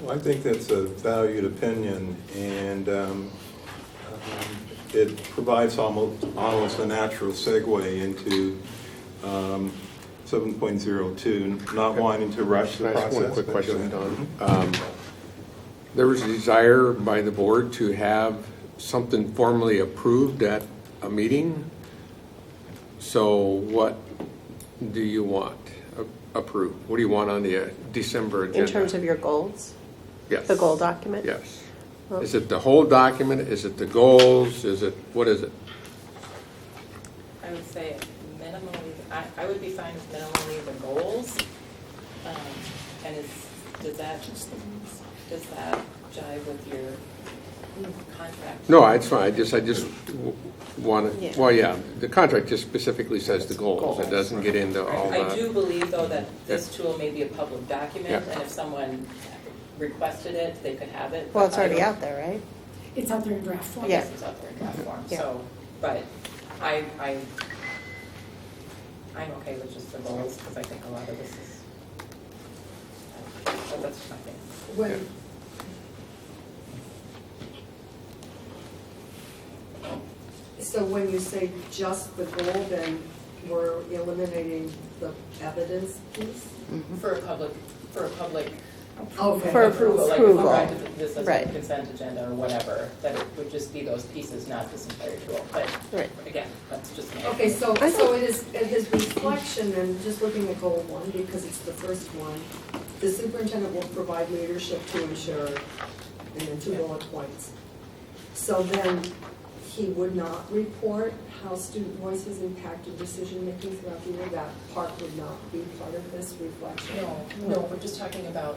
Well, I think that's a valued opinion, and um, um, it provides almost, almost a natural segue into um, 7.02, not wanting to rush Can the I process. ask one quick but go question, ahead. Don? Um, There was a desire by the board to have something formally approved at a meeting. So what do you want a- approved? What do you want on the uh, December agenda? In terms of your goals, Yes. the goal document? Yes. Is it the whole document? Is it the goals? Is it, what is it? I would say minimally, I, I would be fine with minimally the goals. Um, And is, does that, does that jive with your contract? No, it's fine, I just, I just want Yeah. to, well, yeah, the contract just specifically says the goals. It Goals. doesn't get into all the. I do believe, though, that this tool may be a public document, Yeah. and if someone requested it, they could have it. Well, it's but I already don't- out there, right? It's out there in draft form. I Yeah. guess it's out there in draft form, Yeah. so, but I, I, I'm okay with just the goals, because I think a lot of this is, uh, but that's just my thing. When, So when you say just the goal, then we're eliminating the evidence piece? For a public, for a public. Okay. Mm-hmm. Oh, For approval, like if approval, we wanted This as a right. consent agenda or whatever, that it would just be those pieces, not this entire tool, but Right. again, that's just me. Okay, so, I so it is, it is reflection, and just looking at goal one, because it's the first one, the superintendent will provide leadership to ensure, and then two bullet points. So then, he would not report how student voices impacted decision-making throughout the year, that part would not be part of this reflection? No, no, we're just talking about,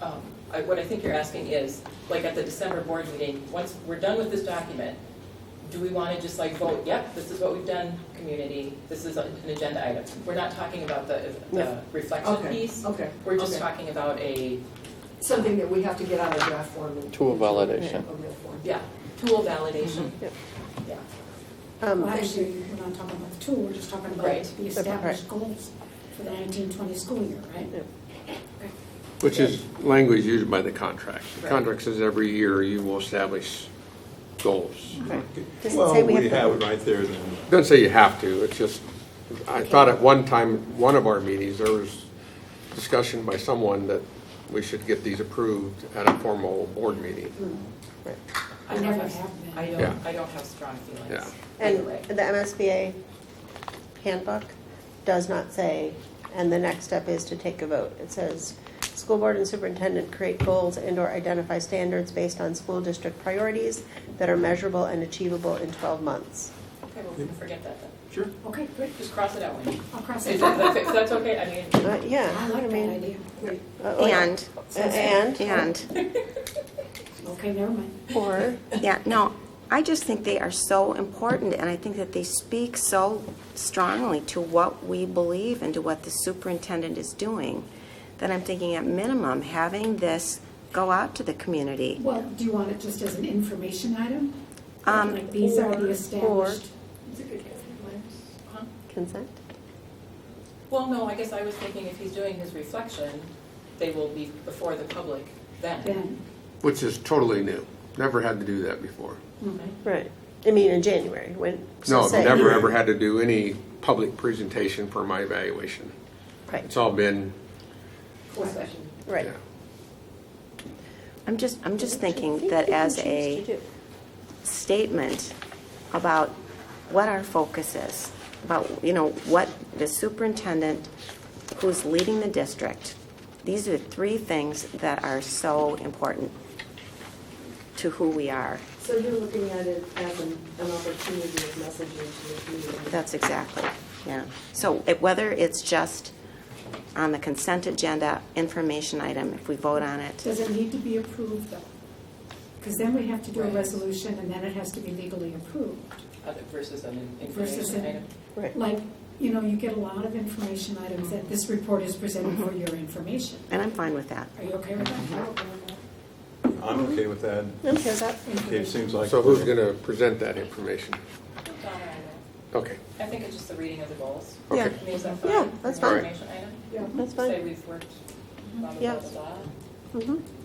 um, I- what I think you're asking is, like at the December board meeting, once we're done with this document, do we want to just like vote, yep, this is what we've done, community, this is an agenda item? We're not talking about the the No. reflection Okay, piece. okay. We're just okay. talking about a, Something that we have to get out of draft form and. Tool validation. A real form. yeah, tool validation. Mm-hmm. Yep. Yeah. well, Um, actually, we're not talking about the tool, we're just talking about Right. the established goals for the nineteen twenty school year, right? Yeah. Which is language used by the contract. The Right. contract says every year you will establish goals. right. Does it say Well, we we have have it right there then. Doesn't say you have to, it's just, I thought at one time, one of our meetings, there was discussion by someone that we should get these approved at a formal board meeting. to? right. I It don't never have, happened. I Yeah. don't, I don't have strong feelings. Yeah. either And way. the MSBA handbook does not say, and the next step is to take a vote. It says, "School board and superintendent create goals and/or identify standards based on school district priorities that are measurable and achievable in 12 months." Okay, well, we can forget that then. Sure. Okay, great, Just cross it out, Wendy. I'll cross If it out. that's- if that's okay, I mean, Uh, Yeah. I like I that mean, idea. uh, oh, yeah. And, Uh, And? and, Okay, never mind. Or, yeah, no, I just think they are so important, and I think that they speak so strongly to what we believe and to what the superintendent is doing, that I'm thinking at minimum, having this go out to the community. Well, do you want it just as an information item? Um, Like these are the established. consent? Well, no, I guess I was thinking if he's doing his reflection, they will be before the public then. Then, Which is totally new, never had to do that before. Right. I mean, in January, when, so No, I've say- never, ever had to do any public presentation for my evaluation. Right, It's all been, Closed session. right. yeah. I'm just, I'm just thinking that as a statement about what our focus is, about, you know, what the superintendent who's leading the district, these are three things that are so important to who we are. So you're looking at it as an, an opportunity of messaging to the community? That's exactly, yeah. So it- whether it's just on the consent agenda, information item, if we vote on it, does it need to be approved though? Because then we have to do a Right. resolution and then it has to be legally approved. Other- Versus an Versus information an- item. Right. Like, you know, you get a lot of information items that this report is presented for your information. and I'm fine with that. Are you okay with that? I'm okay with that. I'm okay with that. It seems like. So who's going to present that information? Donna, I Okay, know. I think it's just the reading of the goals. Okay. Yeah, I mean, is that fine? Yeah, that's For an fine. Information item? that's Say fine. we've worked blah, blah, Yeah. blah, blah, blah. Mhm.